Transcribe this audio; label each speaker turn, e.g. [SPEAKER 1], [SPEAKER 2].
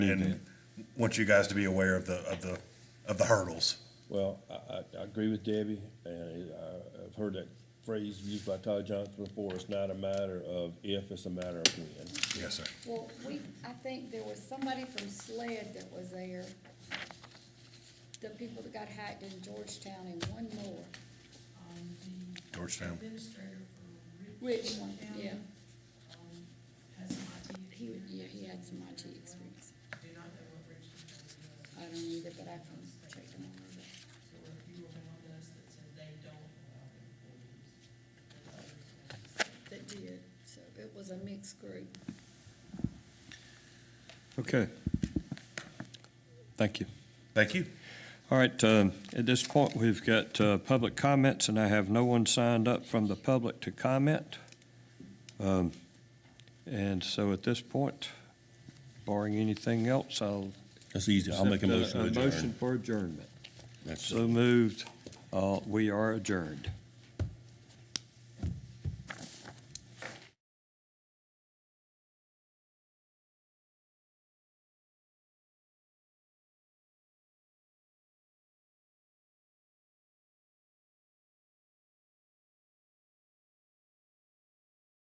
[SPEAKER 1] and want you guys to be aware of the, of the, of the hurdles.
[SPEAKER 2] Well, I, I, I agree with Debbie, and I, I've heard that phrase used by Todd Johnson before, it's not a matter of if, it's a matter of when.
[SPEAKER 1] Yes, sir.
[SPEAKER 3] Well, we, I think there was somebody from SLED that was there, the people that got hacked in Georgetown and one more,
[SPEAKER 4] um,
[SPEAKER 1] Georgetown.
[SPEAKER 4] the administrator for
[SPEAKER 3] Rich,
[SPEAKER 4] Richland County,
[SPEAKER 3] yeah,
[SPEAKER 4] um, has some IT.
[SPEAKER 3] he, would- yeah, he had some IT experience.
[SPEAKER 4] Do not know what Richland County does.
[SPEAKER 3] I don't either, but I can check them out.
[SPEAKER 4] So if you were one of those that said they don't allow employees, then others have to say,
[SPEAKER 3] That did, so it was a mixed group.
[SPEAKER 5] Okay. Thank you.
[SPEAKER 1] Thank you.
[SPEAKER 5] All right, um, at this point, we've got uh, public comments, and I have no one signed up from the public to comment. Um, And so at this point, barring anything else, I'll.
[SPEAKER 2] That's easy, I'll make a
[SPEAKER 5] accept
[SPEAKER 2] motion to
[SPEAKER 5] A motion
[SPEAKER 2] adjourn.
[SPEAKER 5] for adjournment.
[SPEAKER 2] That's-
[SPEAKER 5] So moved. Uh, We are adjourned.